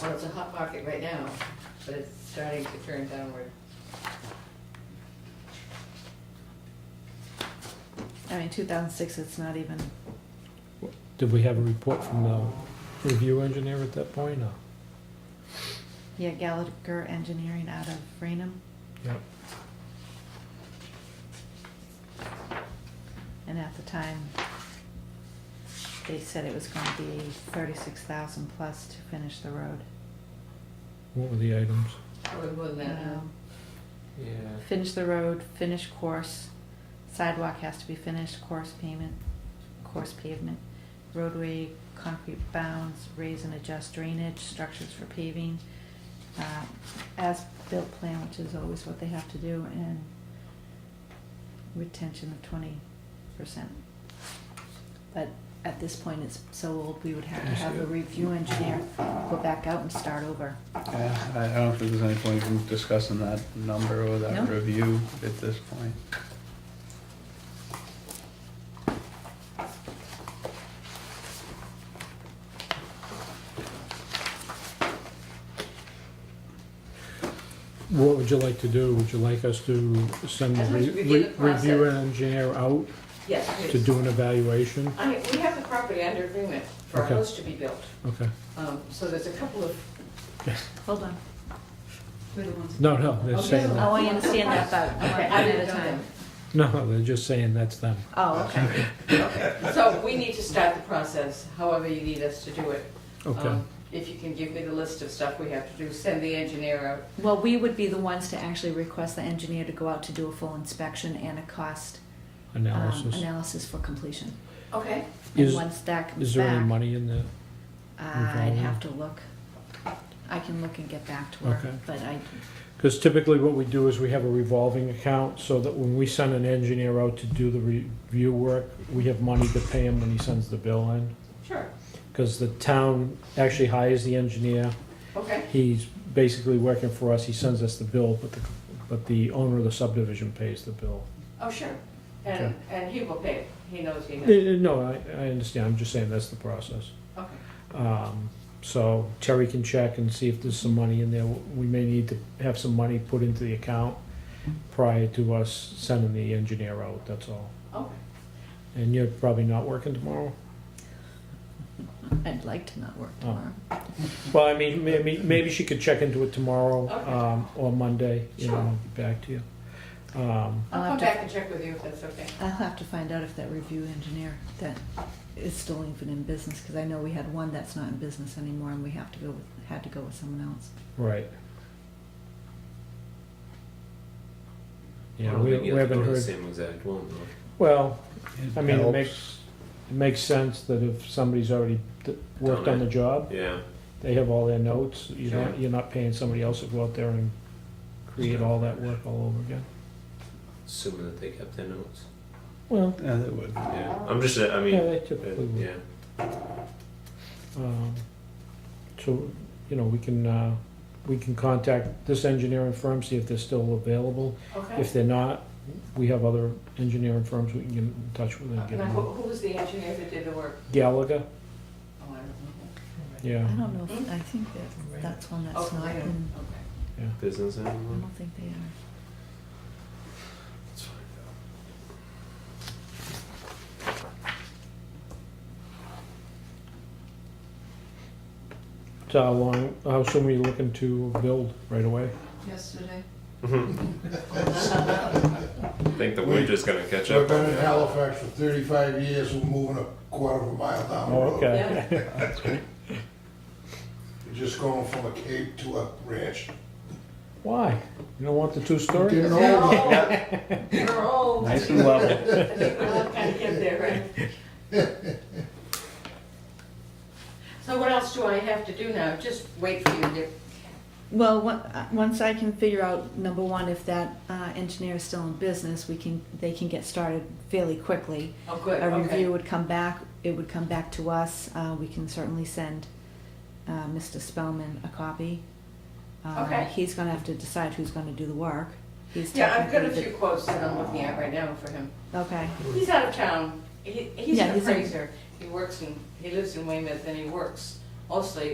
Well, it's a hot market right now, but it's starting to turn downward. I mean, two thousand six, it's not even, Did we have a report from the review engineer at that point? or- yeah, Gallagher Engineering out of Rainham, Yep. and at the time, they said it was gonna be thirty-six thousand plus to finish the road. What were the items? Probably more than that now. Um, Yeah. Finish the road, finish course, sidewalk has to be finished, course payment, course pavement, roadway, concrete bounds, raise and adjust drainage, structures for paving, uh, as-built plan, which is always what they have to do, and retention of twenty percent. But at this point, it's so old, we would have to have a review engineer go back out and start over. Yeah, I I don't think there's any point in discussing that number or that No. review at this point. What would you like to do? Would you like us to send the I'd like to re- review the re- review process. engineer out Yes, to please. do an evaluation? I mean, we have the property under agreement for a Okay. house to be built. Okay. Um, So there's a couple of. Hold on. No, no, they're Okay. saying that. Oh, I understand that, but, okay, I one at a didn't know time. them. No, they're just saying that's them. Oh, okay. So we need to start the process, however you need us to do it. Okay. Um, If you can give me the list of stuff we have to do, send the engineer out. Well, we would be the ones to actually request the engineer to go out to do a full inspection and a cost um, Analysis. analysis for completion. Okay. And Is- once that comes Is there any back, money in there? I'd have to look. I can look and get back to her, Okay. but I, Because typically what we do is we have a revolving account so that when we send an engineer out to do the review work, we have money to pay him when he sends the bill in. Sure. Because the town actually hires the engineer, Okay. he's basically working for us, he sends us the bill, but the, but the owner of the subdivision pays the bill. Oh, sure. And, and he will pay it. He knows he Eh, knows. eh, No, I, I understand, I'm just saying that's the process. Okay. Um, So Terry can check and see if there's some money in there. We may need to have some money put into the account prior to us sending the engineer out, that's all. Okay. And you're probably not working tomorrow? I'd like to not work Oh. tomorrow. Well, I mean, maybe, maybe she could check into it tomorrow Okay. um, or Monday, you know, and get back to you. Um, I'll I'll come have to- back and check with you if that's okay. I'll have to find out if that review engineer that is still even in business, because I know we had one that's not in business anymore and we have to go, with- had to go with someone else. Right. I Yeah, don't we think we you have to haven't go to the heard, same exact one though. well, I mean, it Helps. makes, it makes sense that if somebody's already d- worked Done on it. the job, Yeah. they have all their notes, you're not, Sure. you're not paying somebody else to go out there and create all that work all over again. Assuming that they kept their notes. Well, Yeah, that would. Yeah. I'm just. I mean. yeah, they uh, typically would. yeah. Um, So, you know, we can, uh, we can contact this engineering firm, see if they're still available. Okay. If they're not, we have other engineering firms we can get in touch with and get Now, who, them. who was the engineer that did the work? Gallagher, Oh, I don't know. yeah. I don't know, Hmm? if- I think that, that's one that's Oh, not I in, don't- okay. Business I animal. don't think they are. Let's find out. So how uh, long, how soon are you looking to build right away? Yesterday. I think the wind is gonna catch I've up. been on in you. Halifax for thirty-five years, we're moving a quarter of a mile down the Oh, road. okay. We're Just going from a cape to a ranch. Why? You don't want the two-story? Getting They're old. old. They're old. Nice and level. I think we're all kind of getting there, right? So what else do I have to do now? Just wait for you to, Well, on- uh, once I can figure out, number one, if that uh, engineer is still in business, we can, they can get started fairly quickly. oh, good, A okay. review would come back, it would come back to us, uh, we can certainly send uh, Mr. Spellman a copy. Uh, Okay. He's gonna have to decide who's gonna do the work. He's Yeah, I've got a technically few quotes that I'm looking at right now for him. the- Okay, He's out of town. He, he's Yeah, an he's in- appraiser. He works in, he lives in Weymouth and he works mostly